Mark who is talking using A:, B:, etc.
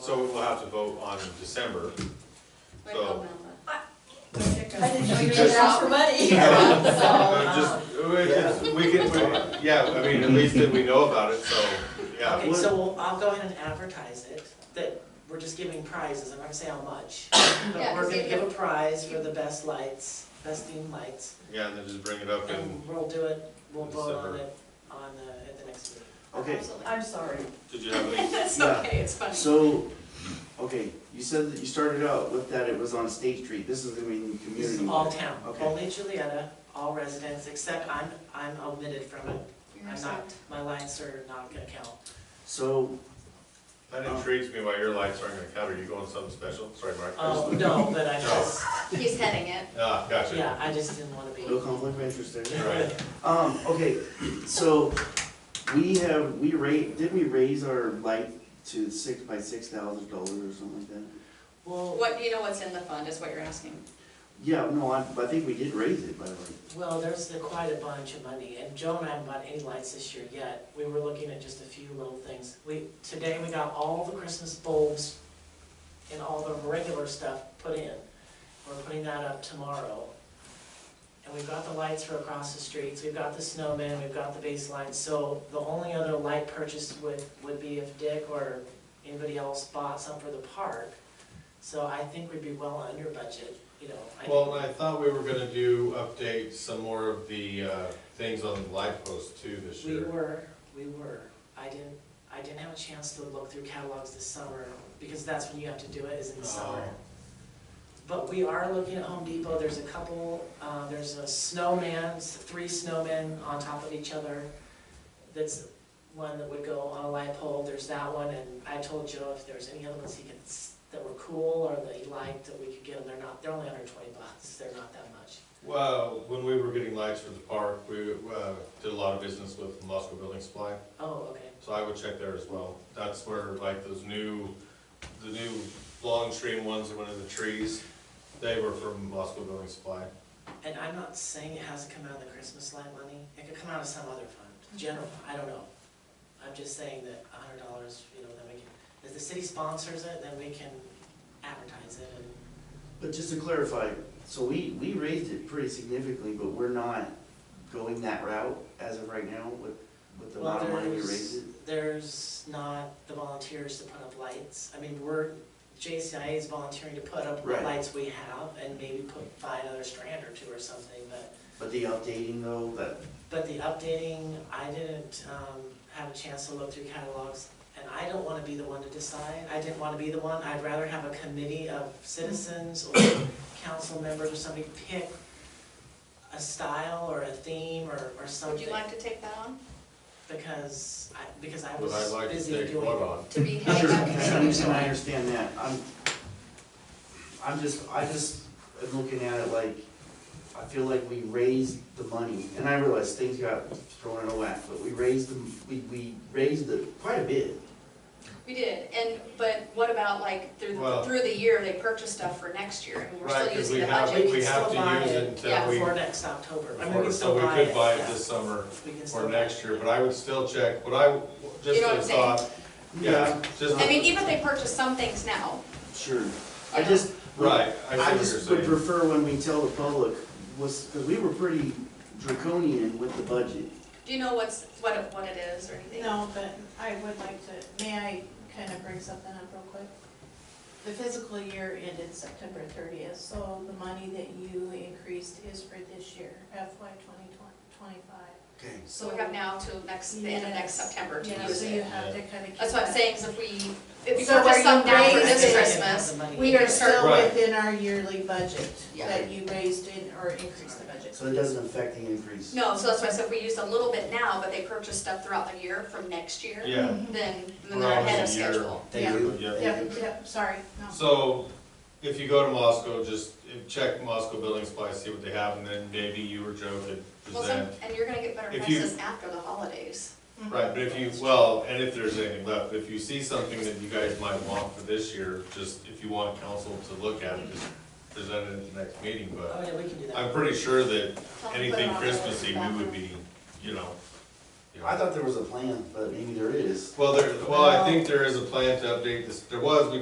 A: So we'll have to vote on December.
B: Wait,
A: So-
B: hold on,
C: I didn't know you were
A: Just-
C: gonna ask for money.
A: Uh,
D: um,
A: Just, we just- we can, we- yeah, I mean, at least that we know about it, so, yeah.
D: Okay, so we'll- I'll go ahead and advertise it, that we're just giving prizes, I'm not gonna say how much. But
B: Yeah,
D: we're
B: just
D: gonna
B: give
D: give a prize for the best lights, best themed lights,
A: Yeah, and then just bring it up and,
D: and we'll do it, we'll vote on
A: December.
D: it on, uh, at the next meeting.
E: Okay,
B: Absolutely.
C: I'm sorry.
A: did you have any?
B: It's
E: Yeah.
B: okay, it's funny.
E: so, okay, you said that you started out with that it was on State Street, this is gonna be in the
D: This is
E: community.
D: all town,
E: Okay.
D: only Julieta, all residents, except I'm, I'm omitted from it,
B: You're
D: I'm
B: sorry.
D: not, my lights are not gonna count.
E: So,
A: That intrigues me why your lights aren't gonna count. Are you going something special? Sorry, Mark.
D: Oh, no, but I just,
B: He's heading it.
A: Ah,
D: yeah,
A: gotcha.
D: I just didn't wanna be.
E: no conflict of interest there.
A: Right.
E: Um, okay, so, we have, we rate, didn't we raise our light to six by six thousand dollars or something like that?
D: Well,
B: What, you know what's in the fund is what you're asking.
E: Yeah, no, I, I think we did raise it, by the way.
D: well, there's a- quite a bunch of money, and Joe and I haven't bought any lights this year yet. We were looking at just a few little things. We, today we got all the Christmas bulbs and all the regular stuff put in. We're putting that up tomorrow. And we've got the lights for across the streets, we've got the snowman, we've got the baseline, so the only other light purchase would, would be if Dick or anybody else bought some for the park. So I think we'd be well under budget, you know. I think-
A: Well, and I thought we were gonna do, update some more of the, uh, things on the light post too this
D: We
A: year.
D: were, we were. I didn't, I didn't have a chance to look through catalogs this summer, because that's when you have to do it, is in the summer.
A: Oh.
D: But we are looking at Home Depot, there's a couple, uh, there's a snowman, s- three snowmen on top of each other. That's one that would go on a light pole, there's that one, and I told Joe if there's any other ones he could, s- that were cool or that he liked, that we could get them, they're not, they're only under twenty bucks, they're not that much.
A: Well, when we were getting lights for the park, we, uh, did a lot of business with Moscow Building Supply.
D: Oh, okay.
A: So I would check there as well. That's where like those new, the new long stream ones that went in the trees, they were from Moscow Building Supply.
D: And I'm not saying it has to come out of the Christmas light money, it could come out of some other fund, general, I don't know. I'm just saying that a hundred dollars, you know, then we can, if the city sponsors it, then we can advertise it and,
E: But just to clarify, so we, we raised it pretty significantly, but we're not going that route as of right now with, with the
D: well,
E: amount of money we
D: there's,
E: raised it?
D: there's not the volunteers to put up lights. I mean, we're, JCIA is volunteering to put up what
E: Right.
D: lights we have and maybe put, buy another strand or two or something, but
E: But the updating though, that,
D: But the updating, I didn't um, have a chance to look through catalogs, and I don't want to be the one to decide. I didn't want to be the one, I'd rather have a committee of citizens or council members or somebody pick a style or a theme or, or
B: Would
D: something.
B: you like to take that on?
D: Because I, because I
A: Would I
D: was
A: like to
D: busy
A: take
D: doing.
A: one on?
B: To be
E: sure,
B: heading
E: I
B: that
E: understand, I understand that, I'm, I'm just, I just am looking at it like, I feel like we raised the money, and I realize things got thrown in a whack, but we raised them, we, we raised it quite a bit.
B: We did, and, but what about like through,
A: Well-
B: through the year, they purchase stuff for next year and we're
A: Right,
B: still
A: because we
B: using the
A: have,
B: budget.
A: we have to
D: Still buy
A: use
D: it,
A: it until
B: yeah,
A: we,
D: Before next October. I mean, we
A: before-
D: can
A: so
D: still
A: we
D: buy
A: could buy it
D: yeah.
A: this summer
D: We can still
A: or
D: buy
A: next
D: it.
A: year, but I would still check, what I, just
B: You know what
A: a
B: I'm saying?
A: thought, yeah, just,
B: I mean, even if they purchase some things now,
E: Sure, I just.
A: right, I see
E: I
A: what
E: just would
A: you're saying.
E: prefer when we tell the public, was, because we were pretty draconian with the budget.
B: do you know what's, what, it- what it is or anything?
F: No, but I would like to, may I kind of bring something up real quick? The fiscal year ended September thirtieth, so the money that you increased is for this year, FY twenty twenty-five.
E: Okay.
B: So we have now till next, the end of next
F: Yes.
B: September to
F: Yeah,
B: use
F: so you
B: it.
F: have to kind of.
B: That's what I'm saying, is if we, if we
F: So where
B: purchase some
F: you
B: now for
F: raise
B: this
F: it-
B: Christmas, we
F: We are
B: gotta start,
F: still
A: Right.
F: within our yearly budget
B: Yeah.
F: that you raised in, or increased the budget.
E: So it doesn't affect the increase.
B: no, so that's why I said we used a little bit now, but they purchase stuff throughout the year from next year.
A: Yeah,
B: Then, then
A: We're
B: they're
A: almost
B: ahead of
A: a year.
B: schedule.
E: Thank you.
A: Yeah.
F: Yeah, yeah, sorry, no.
A: so if you go to Moscow, just uh, check Moscow Building Supply, see what they have, and then maybe you or Joe could
B: Well, some,
A: present.
B: and you're gonna get better
A: If you-
B: prices after the holidays.
F: Mhm.
A: Right, but if you, well, and if there's anything left, if you see something that you guys might want for this year, just if you want council to look at it, just present it at the next meeting,
D: Oh,
A: but
D: yeah, we can do that.
A: I'm pretty sure that
B: Tell them to put it
A: anything
B: on the
A: Christmassy, we would
B: bathroom.
A: be, you know. you know.
E: I thought there was a plan, but maybe there is.
A: Well, there, well, I think there is a plan to update this, there was, we